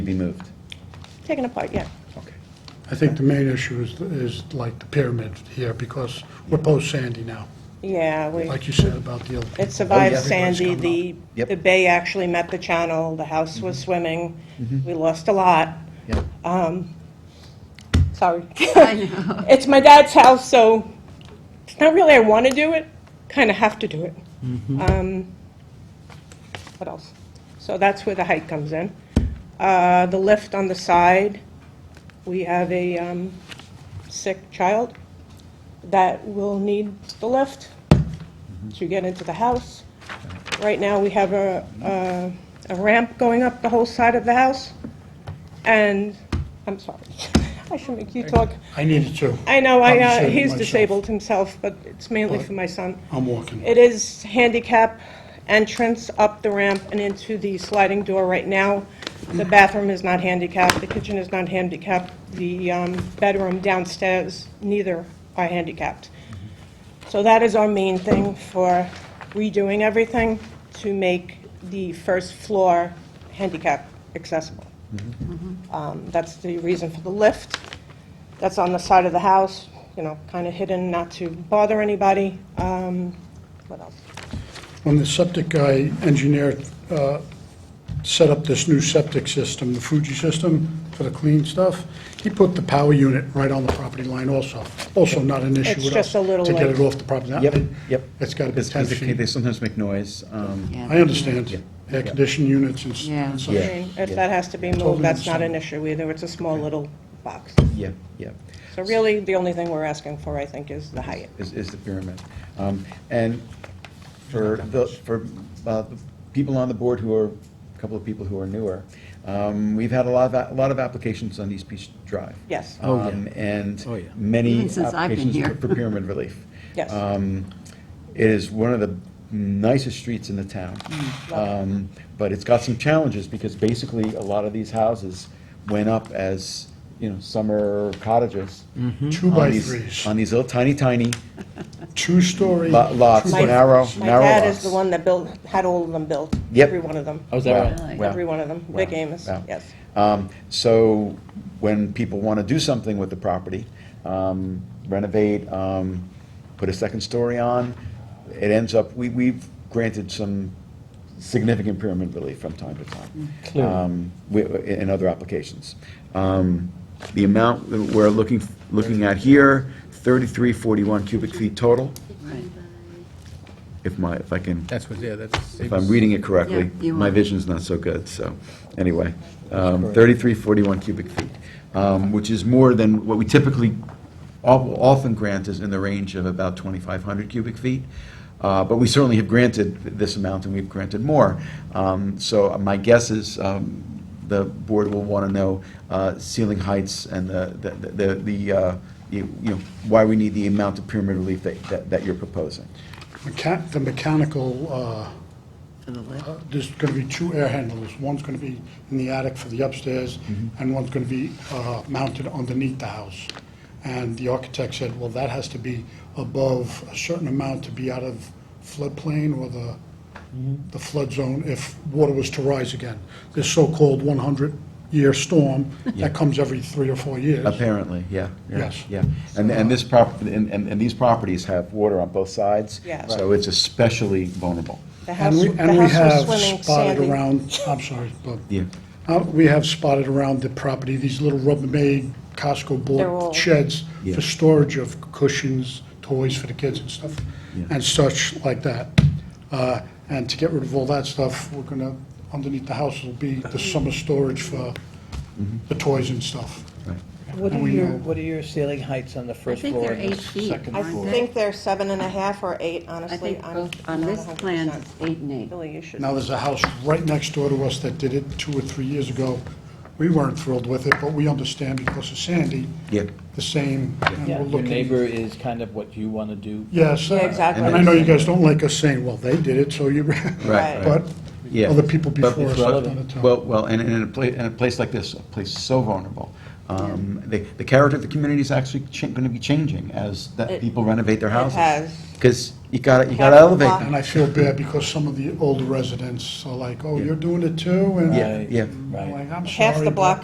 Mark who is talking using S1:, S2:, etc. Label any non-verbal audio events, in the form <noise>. S1: be moved.
S2: Taken apart, yeah.
S1: Okay.
S3: I think the main issue is, is like the pyramid here, because we're post-Sandy now,
S2: Yeah, we,
S3: like you said about the other.
S2: it
S3: people.
S2: survived
S1: Everybody's
S2: Sandy,
S3: coming
S2: the,
S1: Yep.
S2: the bay actually met the channel, the house was swimming, we lost a lot,
S1: Yeah.
S2: sorry. It's my dad's house, so it's not really I want to do it, kind of have to do it. Um, What else? So that's where the height comes in. Uh, The lift on the side, we have a um, sick child that will need the lift to get into the house. Right now, we have a, a- a ramp going up the whole side of the house, and, I'm sorry, <laughs> I should make you talk.
S3: I need it too.
S2: I know, I, uh,
S3: I'm disabled
S2: he's
S3: myself.
S2: disabled himself, but it's mainly for my son.
S3: I'm walking.
S2: It is handicap entrance up the ramp and into the sliding door right now. The bathroom is not handicapped, the kitchen is not handicapped, the um, bedroom downstairs, neither are handicapped. So that is our main thing for redoing everything to make the first floor handicap accessible. Um, That's the reason for the lift. That's on the side of the house, you know, kind of hidden, not to bother anybody. Um, What else?
S3: When the septic guy engineer uh, set up this new septic system, the Fuji system for the clean stuff, he put the power unit right on the property line also. Also not an issue
S2: It's
S3: with us.
S2: just a little
S3: To get
S2: like-
S3: it off the property. line.
S1: Yep, yep.
S3: It's got to be
S1: Because
S3: 10
S1: because they- they
S3: feet.
S1: sometimes make noise. um,
S3: I understand. Air
S1: Yeah.
S3: conditioning units and s-
S4: Yeah.
S3: and
S2: I
S3: such.
S1: Yeah.
S2: mean, If that has to be moved,
S3: Totally
S2: that's not an
S3: understand.
S2: issue either. It's a small little box.
S1: Yeah, yeah,
S2: So really, the only thing we're asking for, I think, is the height.
S1: is, is the pyramid. Um, And for the, for uh, the people on the board who are, a couple of people who are newer, um, we've had a lot of, a- a lot of applications on East Beach Drive.
S2: Yes.
S1: Oh, yeah. And
S5: Oh, yeah.
S1: many
S4: Even since I've been
S1: applications
S4: here.
S1: for for pyramid
S4: <laughs>
S1: relief.
S2: Yes.
S1: Um, It is one of the nicest streets in the town.
S4: Mm,
S2: Love
S1: Um, But it's got some challenges, because basically, a lot of these houses went up as, you know, summer cottages.
S3: Two
S1: on
S3: by
S1: these-
S3: threes.
S1: On these little tiny, tiny
S3: Two-story.
S1: lo- lots,
S2: My-
S1: narrow,
S2: My
S1: narrow
S2: dad is the
S1: lots.
S2: one that built, had all of them built.
S1: Yep.
S2: Every one of them.
S5: Oh, is that right?
S1: Wow,
S4: Really?
S1: wow,
S2: Every one of them. Big
S1: wow,
S2: Amos,
S1: wow.
S2: yes.
S1: Um, So when people want to do something with the property, um, renovate, um, put a second story on, it ends up, we, we've granted some significant pyramid relief from time to time.
S5: Mm. Clearly.
S1: um, wi- In other applications. Um, The amount that we're looking, looking at here, 3341 cubic feet total,
S4: Right.
S1: if my, if I can
S5: That's what, yeah, that's.
S1: if I'm reading it correctly.
S4: Yeah, you
S1: My
S4: are.
S1: vision's not so good, so, anyway. um, 3341 cubic feet, um, which is more than what we typically of- often grant is in the range of about 2,500 cubic feet. Uh, But we certainly have granted this amount, and we've granted more. Um, So my guess is um, the board will want to know uh, ceiling heights and the, the- the- the, uh, you you know, why we need the amount of pyramid relief that- that that you're proposing.
S3: Mecha- The mechanical, uh,
S4: To the left.
S3: uh, there's going to be two air handlers. One's going to be in the attic for the upstairs,
S1: Mm-hmm.
S3: and one's going to be uh, mounted underneath the house. And the architect said, well, that has to be above a certain amount to be out of floodplain or the
S1: Mm-hmm.
S3: the flood zone if water was to rise again. This so-called 100-year storm that comes every three or four years.
S1: Apparently, yeah. yeah,
S3: Yes.
S1: Yeah, and, and this prop, and, and and these properties have water on both sides.
S2: Yeah.
S1: So it's especially vulnerable.
S2: The house,
S3: And we,
S2: the
S3: and we
S2: house
S3: have
S2: was swimming,
S3: spotted
S2: sandy.
S3: around,
S2: <laughs>
S3: I'm sorry, but.
S1: Yeah.
S3: Uh, we have spotted around the property, these little Rubbermaid Costco
S2: They're all-
S3: board sheds
S1: Yeah.
S3: for storage of cushions, toys for the kids and stuff,
S1: Yeah.
S3: and such like that. Uh, and to get rid of all that stuff, we're gonna, underneath the house will be the summer storage for
S1: Mm-hmm.
S3: the toys and stuff.
S1: Right.
S6: What
S3: And
S6: are
S3: we
S6: your,
S3: know-
S6: what are your ceiling heights on the first
S4: think
S6: floor
S4: they're
S6: and the
S4: eight feet,
S6: second
S2: I
S4: aren't
S6: floor?
S4: they?
S2: think they're seven and a half or eight,
S4: I
S2: honestly.
S4: think
S2: I'm
S4: both on
S2: not
S4: this
S2: 100%.
S4: plan, it's eight and eight.
S2: Billy, you should.
S3: Now, there's a house right next door to us that did it two or three years ago. We weren't thrilled with it, but we understand because of Sandy.
S1: Yeah.
S3: The same, and
S6: Yeah,
S3: we're
S6: Your
S3: looking.
S6: neighbor is kind of what you want to do.
S3: Yes.
S2: Yeah,
S3: uh,
S2: exactly.
S3: And I know you guys don't like us saying, well, they did it, so you, <laughs>
S2: Right.
S3: but
S1: Yeah.
S3: other people
S1: But-
S3: before us have done it too.
S1: Well, well, and and in a place, in a place like this, a place so vulnerable, um, Um, The the character of the community is actually going to be changing as that
S4: It-
S1: people renovate their houses.
S2: has.
S1: Because you got to, you got to
S2: Had a
S1: elevate
S2: lot.
S1: them.
S3: And I feel bad because some of the older residents are like, oh, you're doing it too? And
S1: Yeah, yeah.
S3: I'm like, I'm sorry.
S2: Half the
S3: but-
S2: block